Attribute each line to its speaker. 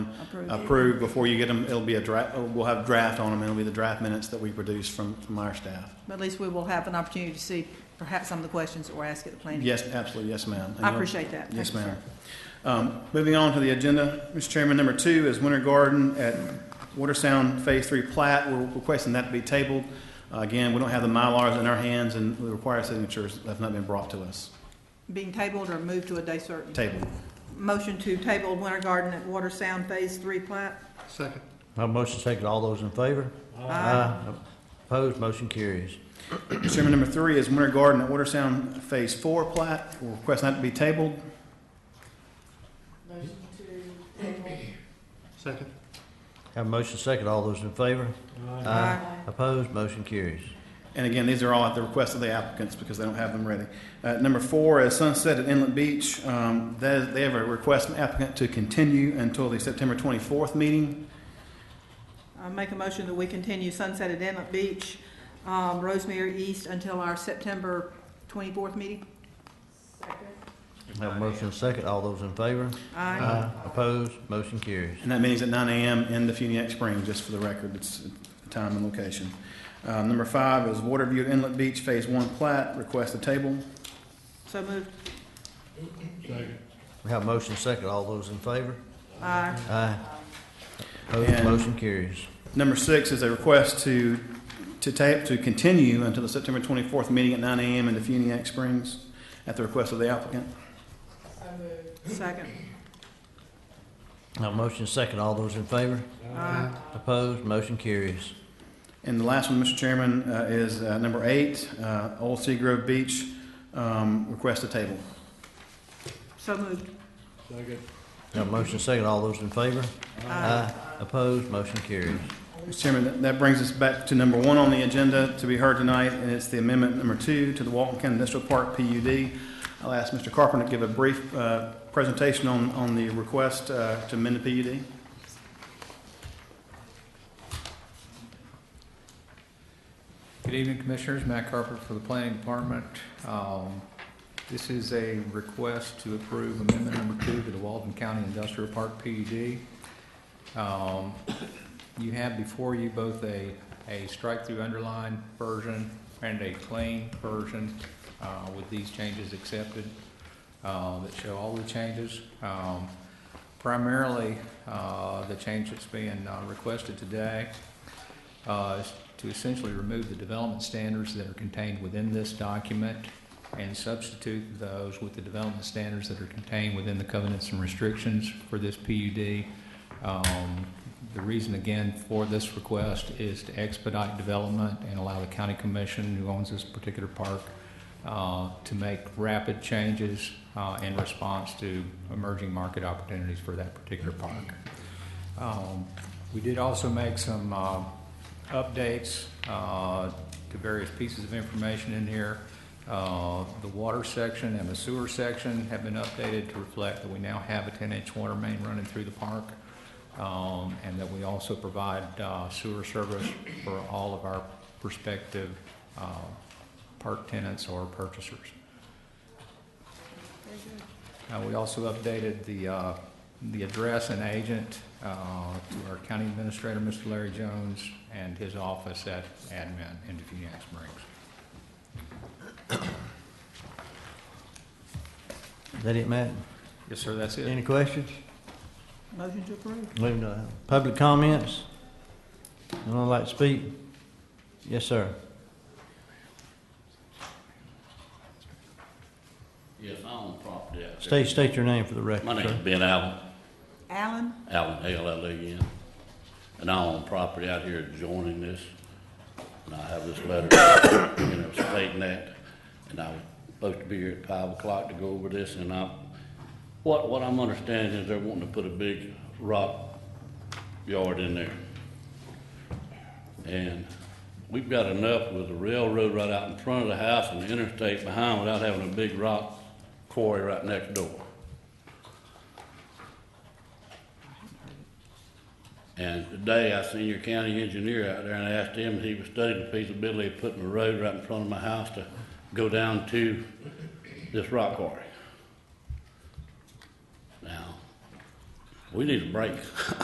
Speaker 1: Approved.
Speaker 2: approved before you get them. It'll be a draft, we'll have draft on them, and it'll be the draft minutes that we produce from, from our staff.
Speaker 1: But at least we will have an opportunity to see perhaps some of the questions that were asked at the planning.
Speaker 2: Yes, absolutely, yes, ma'am. And
Speaker 1: I
Speaker 2: you'll-
Speaker 1: appreciate that.
Speaker 2: Yes,
Speaker 1: Thank you,
Speaker 2: ma'am. Um, Moving on to the agenda, Mr. Chairman, number two is Winter Garden at Water Sound Phase Three plat. We're requesting that to be tabled. Uh, Again, we don't have the Mylars in our hands, and the required signatures have not been brought to us.
Speaker 1: Being tabled or moved to a day certain.
Speaker 2: Tabled.
Speaker 1: Motion to table Winter Garden at Water Sound Phase Three plat.
Speaker 3: Second.
Speaker 4: Have a motion second, all those in favor? Aye. Opposed, motion carries.
Speaker 2: Mr. Chairman, number three is Winter Garden at Water Sound Phase Four plat. We're requesting that to be tabled.
Speaker 3: Second.
Speaker 4: Have a motion second, all those in favor?
Speaker 1: Aye.
Speaker 4: Opposed, motion carries.
Speaker 2: And again, these are all at the request of the applicants because they don't have them ready. Uh, number four is Sunset at Inlet Beach. Um, that is, they have a request from applicant to continue until the September twenty-fourth meeting.
Speaker 1: I make a motion that we continue Sunset at Inlet Beach, um, Rosemary East until our September twenty-fourth meeting.
Speaker 4: Have a motion second, all those in favor?
Speaker 1: Aye.
Speaker 4: Opposed, motion carries.
Speaker 2: And that meeting's at nine AM in the Funiac Spring, just for the record, it's the time and location. Uh, number five is Waterview at Inlet Beach Phase One plat, request a table.
Speaker 1: So moved.
Speaker 4: Have a motion second, all those in favor?
Speaker 1: Aye.
Speaker 4: Aye. Opposed,
Speaker 2: And-
Speaker 4: motion carries.
Speaker 2: Number six is a request to, to tape, to continue until the September twenty-fourth meeting at nine AM in the Funiac Springs at the request of the applicant.
Speaker 1: Second.
Speaker 4: Have a motion second, all those in favor?
Speaker 1: Aye.
Speaker 4: Opposed, motion carries.
Speaker 2: And the last one, Mr. Chairman, uh, is uh, number eight, uh, Old Seagrove Beach, um, request a table.
Speaker 1: So moved.
Speaker 3: Second.
Speaker 4: Have a motion second, all those in favor? Aye. Opposed, motion carries.
Speaker 2: Mr. Chairman, that- that brings us back to number one on the agenda to be heard tonight, and it's the amendment number two to the Walton County Industrial Park PUD. I'll ask Mr. Carpenter to give a brief uh, presentation on, on the request uh, to amend the PUD.
Speaker 5: Good evening, Commissioners. Matt Carpenter for the Planning Department. Um, This is a request to approve amendment number two to the Walden County Industrial Park PUD. Um, You have before you both a, a strike-through underline version and a plain version uh, with these changes accepted uh, that show all the changes. Um, Primarily, uh, the change that's being uh, requested today uh, is to essentially remove the development standards that are contained within this document and substitute those with the development standards that are contained within the covenants and restrictions for this PUD. Um, The reason, again, for this request is to expedite development and allow the county commission, who owns this particular park, uh, to make rapid changes uh, in response to emerging market opportunities for that particular park. Um, We did also make some uh, updates uh, to various pieces of information in here. Uh, The water section and the sewer section have been updated to reflect that we now have a 10-inch water main running through the park, um, and that we also provide uh, sewer service for all of our prospective uh, park tenants or purchasers. Uh, We also updated the, uh, the address and agent uh, to our county administrator, Mr. Larry Jones, and his office at admin in Defuniak Springs.
Speaker 4: Is that it, Matt?
Speaker 5: Yes, sir, that's it.
Speaker 4: Any questions?
Speaker 1: Motion to approve.
Speaker 4: Moving to public comments. Anyone like to speak? Yes, sir.
Speaker 6: Yes, I own property out there.
Speaker 4: State, state your name for the record,
Speaker 6: My name's
Speaker 4: sir.
Speaker 6: Ben Allen,
Speaker 1: Allen?
Speaker 6: Allen, A-L-L-E-N. E And I own property out here adjoining this. And I have this letter, you know, stating that. And I was supposed to be here at five o'clock to go over this and I, what, what I'm understanding is they're wanting to put a big rock yard in there. And we've got enough with the railroad right out in front of the house and the interstate behind without having a big rock quarry right next door. And today, I seen your county engineer out there and I asked him if he was studying the feasibility of putting a road right in front of my house to go down to this rock quarry. Now, we need a break.